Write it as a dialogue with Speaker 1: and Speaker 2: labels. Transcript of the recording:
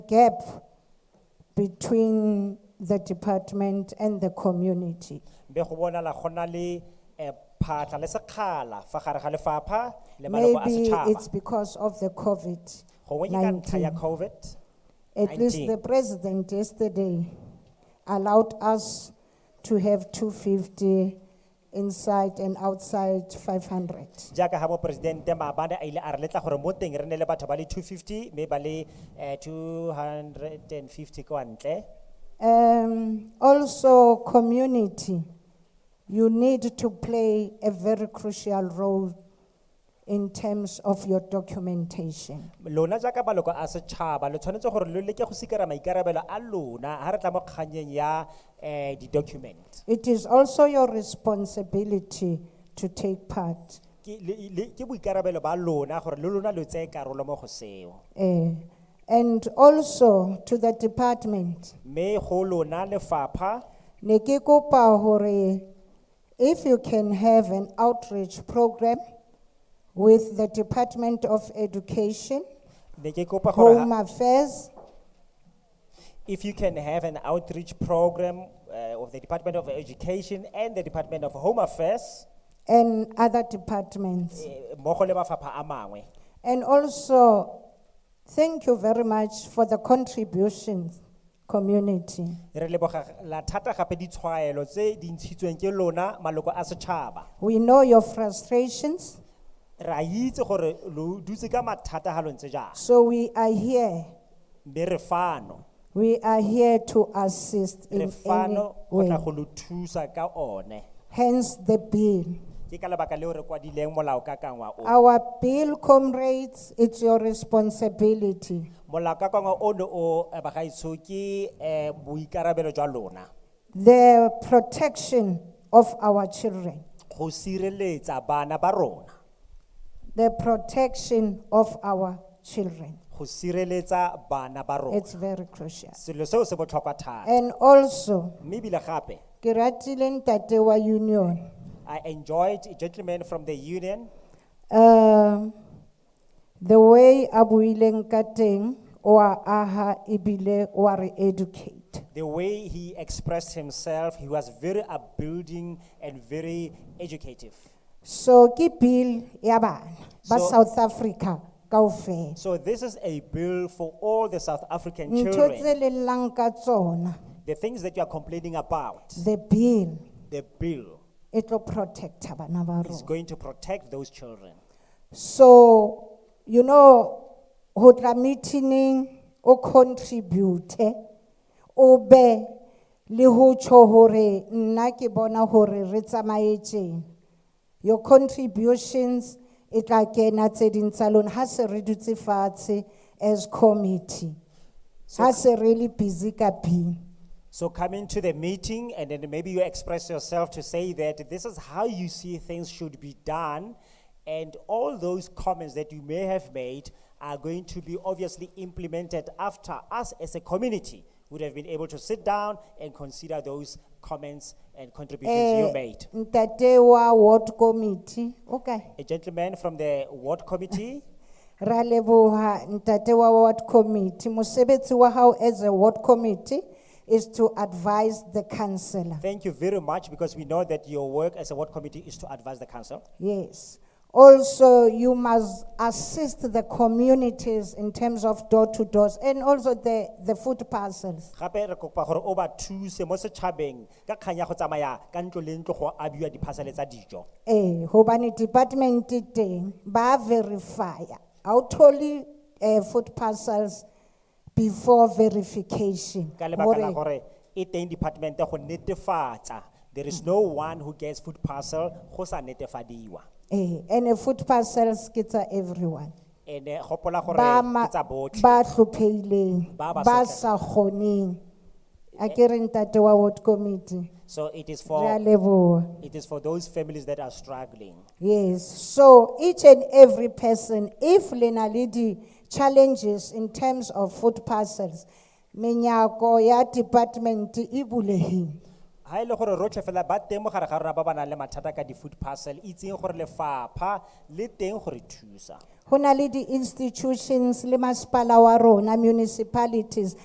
Speaker 1: gap between the department and the community.
Speaker 2: be go bonala go na le eh, phatlha le sekgala fa gare ga lefapha le maloko a
Speaker 1: Maybe it's
Speaker 2: setšhaba
Speaker 1: because of the COVID.
Speaker 2: gongwe ke ka ntlha ya
Speaker 1: 19.
Speaker 2: covid
Speaker 1: At least
Speaker 2: 19.
Speaker 1: the president yesterday allowed us to have two fifty inside and outside five hundred.
Speaker 2: jaaka ga moporesidente maabane a ile a re letla gore mo teng re ne le batho ba le 250 mme ba le eh, 250 kwa ntle
Speaker 1: Um, also, community, you need to play a very crucial role in terms of your documentation.
Speaker 2: lona jaaka maloko a setšhaba le tshwanetse gore lo leke go sikara maikarabelo a lona ga re tla mo kganyeng ya um di-document
Speaker 1: It is also your responsibility to take part.
Speaker 2: Ke- le- le- ke boikarabelo ba lona gore le lona lo tseye karolo mo go seo
Speaker 1: eh, and also to the department.
Speaker 2: mme go lona lefapha
Speaker 1: Ne ke kopa hore if you can have an outreach program with the Department of Education,
Speaker 2: ne ke kopa gore
Speaker 1: Home
Speaker 2: ha-
Speaker 1: Affairs,
Speaker 2: if you can have an outreach program uh, of the department of education and the department of home affairs
Speaker 1: and other departments.
Speaker 2: eh, mmogo le mafapha a mangwe
Speaker 1: And also, thank you very much for the contributions, community.
Speaker 2: re lebogela thata gape ditshwaelo tse di ntshitsweng ke lona maloko a setšhaba
Speaker 1: We know your frustrations,
Speaker 2: re a itse gore lo dutse ka mathata ga lo ntse jang
Speaker 1: so we are here.
Speaker 2: mme re fano
Speaker 1: We are here to assist
Speaker 2: re
Speaker 1: in any
Speaker 2: fano go tla
Speaker 1: way.
Speaker 2: go lo thusa ka one
Speaker 1: Hence the bill.
Speaker 2: ke ka lebaka leo re kwadileng molaokakangwa o
Speaker 1: Our bill, comrades, it's your responsibility.
Speaker 2: molaokakangwa ono o eh, bagaetsho ke um boikarabelo jwa lona
Speaker 1: The protection of our children,
Speaker 2: go sireletsa bana ba rona
Speaker 1: the protection of our children.
Speaker 2: go sireletsa bana ba rona
Speaker 1: It's very crucial.
Speaker 2: selo seo se botlhokwa thata
Speaker 1: And also,
Speaker 2: mme ebile gape
Speaker 1: ke ratile ntate wa union.
Speaker 2: i enjoyed a gentleman from the union
Speaker 1: Um, the way a buileng ka teng, oa aha ebile oa re educate.
Speaker 2: the way he expressed himself he was very upbuilding and very educative
Speaker 1: So ke bill ya bana ba
Speaker 2: So-
Speaker 1: South Africa kaofela.
Speaker 2: so this is a bill for all the south african
Speaker 1: ntho tse
Speaker 2: children
Speaker 1: lellang ka tsona
Speaker 2: the things that you are complaining about
Speaker 1: the bill
Speaker 2: the bill
Speaker 1: e tlo protecta bana ba
Speaker 2: is
Speaker 1: rona
Speaker 2: going to protect those children
Speaker 1: so you know ho tla meeting o contribute o be le ho tsho hore nna ke bona hore re tsamaetseng your contributions e tla kena tse ding tsa lona ha se re dutse fatshe as committee ha se re le busy ka bill
Speaker 2: So come into the meeting and then maybe you express yourself to say that this is how you see things should be done. And all those comments that you may have made are going to be obviously implemented after us as a community would have been able to sit down and consider those comments and contributions you
Speaker 1: Eh,
Speaker 2: made.
Speaker 1: ntate wa ward committee, okay.
Speaker 2: A gentleman from the ward committee,
Speaker 1: Ra leboha ntate wa ward committee, mosebetsi wa hao as a ward committee is to advise the councillor.
Speaker 2: thank you very much because we know that your work as a ward committee is to advise the council.
Speaker 1: Yes. Also, you must assist the communities in terms of door to doors and also the, the food parcels.
Speaker 2: gape re kopa gore o ba thuse mo setšhabeng ka kgang ya go tsamaya ka ntlo le ntlo go abiwa diphasale tsa dijo
Speaker 1: Eh, hobani department e teng, ba verify. Outoli eh, food parcels before verification.
Speaker 2: ka lebaka la
Speaker 1: Hore-
Speaker 2: gore e teng departmente go netefatsa there is no one who gets food parcel go sa netefadiwa
Speaker 1: Eh, and a food parcels ke tsa everyone.
Speaker 2: and-e gopola gore
Speaker 1: Ba ma-
Speaker 2: ke tsa botlhe
Speaker 1: Ba hlophehileng,
Speaker 2: Ba Eh.
Speaker 1: ba
Speaker 2: ba sotlehang.
Speaker 1: sa kgoneng. Akere ntate wa ward committee.
Speaker 2: so it is
Speaker 1: Re a
Speaker 2: for
Speaker 1: leboha.
Speaker 2: it is for those families that are struggling
Speaker 1: Yes, so each and every person, if le na le di challenges in terms of food parcels, menyako ya department e bulehile.
Speaker 2: ha e le gore rotlhe fela ba teng mo gare ga rona ba ba nang le mathata ka di-food parcel itseng gore lefapha le teng gore thusa
Speaker 1: Honali di institutions, le masepala wa rona, municipalities,